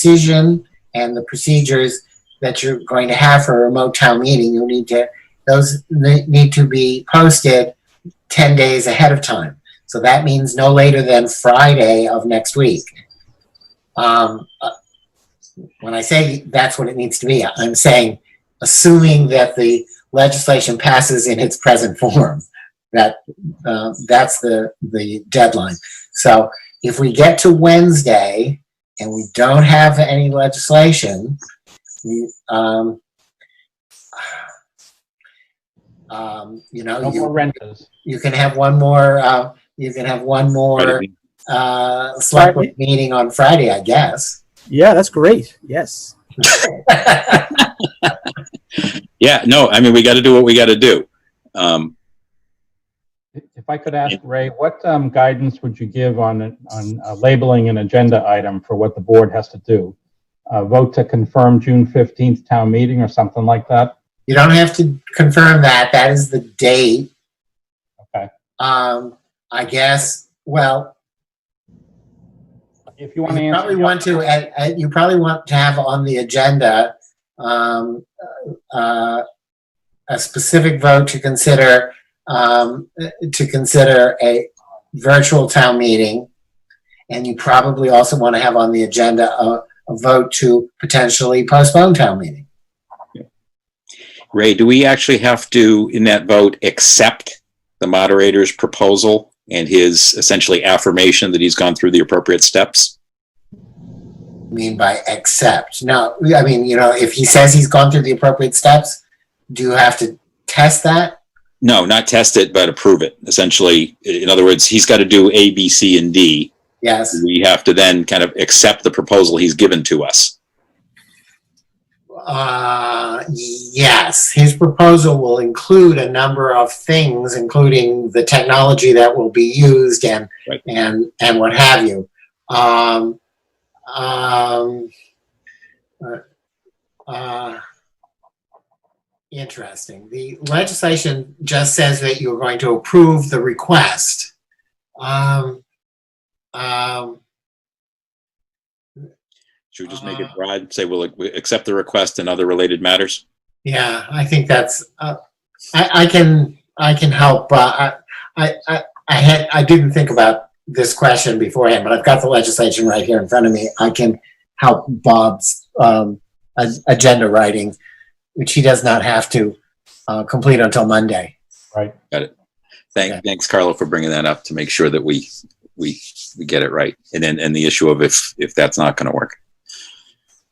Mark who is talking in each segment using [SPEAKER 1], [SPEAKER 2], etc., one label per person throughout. [SPEAKER 1] decision and the procedures that you're going to have for a remote town meeting, you'll need to, those ne- need to be posted 10 days ahead of time. So that means no later than Friday of next week. Um, uh, When I say that's what it needs to be, I'm saying, assuming that the legislation passes in its present form, that, uh, that's the, the deadline. So if we get to Wednesday and we don't have any legislation, you, um, um, you know,
[SPEAKER 2] No more
[SPEAKER 1] you,
[SPEAKER 2] renters.
[SPEAKER 1] you can have one more, uh, you can have one more, uh, select board meeting on Friday, I guess.
[SPEAKER 3] Yeah, that's great. Yes.
[SPEAKER 4] Yeah, no, I mean, we got to do what we got to do. Um,
[SPEAKER 2] If I could ask Ray, what um, guidance would you give on, on uh, labeling an agenda item for what the board has to do? Uh, Vote to confirm June 15th town meeting or something like that?
[SPEAKER 1] You don't have to confirm that. That is the date.
[SPEAKER 2] Okay.
[SPEAKER 1] Um, I guess, well,
[SPEAKER 2] If you want to
[SPEAKER 1] you
[SPEAKER 2] answer.
[SPEAKER 1] probably want to, uh, uh, you probably want to have on the agenda, um, uh, a specific vote to consider, um, uh, to consider a virtual town meeting. And you probably also want to have on the agenda a, a vote to potentially postpone town meeting.
[SPEAKER 4] Ray, do we actually have to, in that vote, accept the moderator's proposal and his essentially affirmation that he's gone through the appropriate steps?
[SPEAKER 1] mean by accept? No, I mean, you know, if he says he's gone through the appropriate steps, do you have to test that?
[SPEAKER 4] No, not test it, but approve it. Essentially, i- in other words, he's got to do A, B, C, and D.
[SPEAKER 1] Yes.
[SPEAKER 4] We have to then kind of accept the proposal he's given to us.
[SPEAKER 1] Uh, yes. His proposal will include a number of things, including the technology that will be used and
[SPEAKER 4] Right.
[SPEAKER 1] and and what have you. Um, um, uh, uh, interesting. The legislation just says that you're going to approve the request. Um, um,
[SPEAKER 4] Should we just make it
[SPEAKER 1] Uh,
[SPEAKER 4] broad, say we'll ac- accept the request and other related matters?
[SPEAKER 1] Yeah, I think that's. Uh, I, I can I can help. Uh, I, I I I had I didn't think about this question beforehand, but I've got the legislation right here in front of me. I can help Bob's um, a- agenda writing, which he does not have to uh, complete until Monday. Okay.
[SPEAKER 4] Thank, thanks, Carlo, for bringing that up to make sure that we, we, we get it right. And then, and the issue of if, if that's not going to work,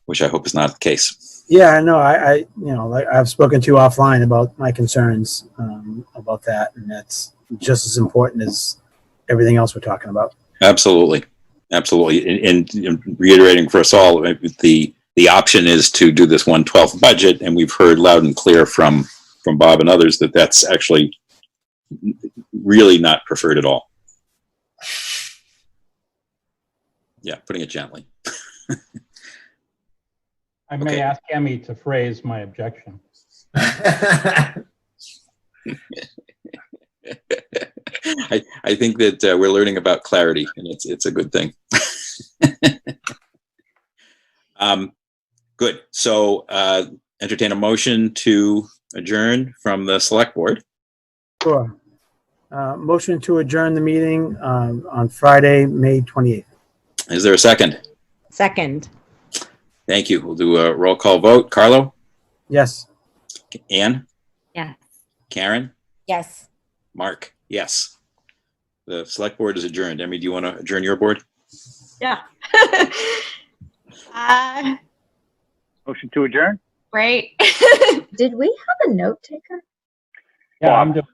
[SPEAKER 4] which I hope is not the case.
[SPEAKER 3] Yeah, I know. I, I you know, like I've spoken to you offline about my concerns um, about that, and that's just as important as everything else we're talking about.
[SPEAKER 4] Absolutely. Absolutely. And, and reiterating for us all, uh, the, the option is to do this one twelfth budget. And we've heard loud and clear from, from Bob and others that that's actually really not preferred at all. Yeah, putting it gently.
[SPEAKER 2] I may
[SPEAKER 4] okay.
[SPEAKER 2] ask Emmy to phrase my objection.
[SPEAKER 4] I, I think that uh, we're learning about clarity, and it's it's a good thing. um, good. So, uh, entertain a motion to adjourn from the select board.
[SPEAKER 3] Sure. Uh, motion to adjourn the meeting um, on Friday, May twenty eighth.
[SPEAKER 4] Is there a second?
[SPEAKER 5] Second,
[SPEAKER 4] Thank you. We'll do a roll call vote. Carlo,
[SPEAKER 3] Yes.
[SPEAKER 4] Anne,
[SPEAKER 5] yes.
[SPEAKER 4] Karen,
[SPEAKER 5] Yes.
[SPEAKER 4] Mark. Yes. The select board is adjourned. Emmy, do you want to adjourn your board?
[SPEAKER 6] Yeah. uh,
[SPEAKER 7] Motion to adjourn?
[SPEAKER 6] right.
[SPEAKER 8] Did we have a note taker?
[SPEAKER 2] Yeah, I'm doing,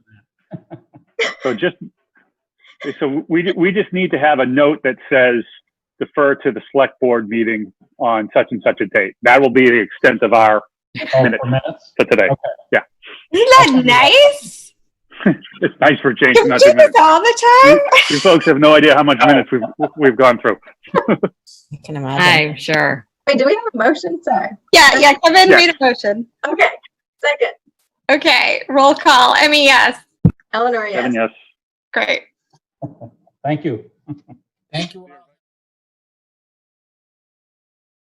[SPEAKER 7] So just, so we, we just need to have a note that says defer to the select board meeting on such and such a date. That will be the extent of our,
[SPEAKER 2] oh,
[SPEAKER 7] Minutes.
[SPEAKER 2] four minutes?
[SPEAKER 7] for today.
[SPEAKER 6] Isn't that nice?
[SPEAKER 7] It's nice for James
[SPEAKER 6] You
[SPEAKER 7] not
[SPEAKER 6] do
[SPEAKER 7] to
[SPEAKER 6] this
[SPEAKER 7] minutes.
[SPEAKER 6] all the time?
[SPEAKER 7] You folks have no idea how much minutes we've, we've gone through.
[SPEAKER 5] I can imagine.
[SPEAKER 9] sure.
[SPEAKER 8] Wait, do we have a motion? Sorry.
[SPEAKER 6] Yeah, yeah. Kevin
[SPEAKER 7] Yeah.
[SPEAKER 6] made a motion.
[SPEAKER 8] Okay. Second.
[SPEAKER 6] Okay. Roll call. I mean, yes.
[SPEAKER 8] Eleanor, yes.
[SPEAKER 7] Kevin, yes.
[SPEAKER 6] Great.
[SPEAKER 2] Thank you.
[SPEAKER 1] Thank you all.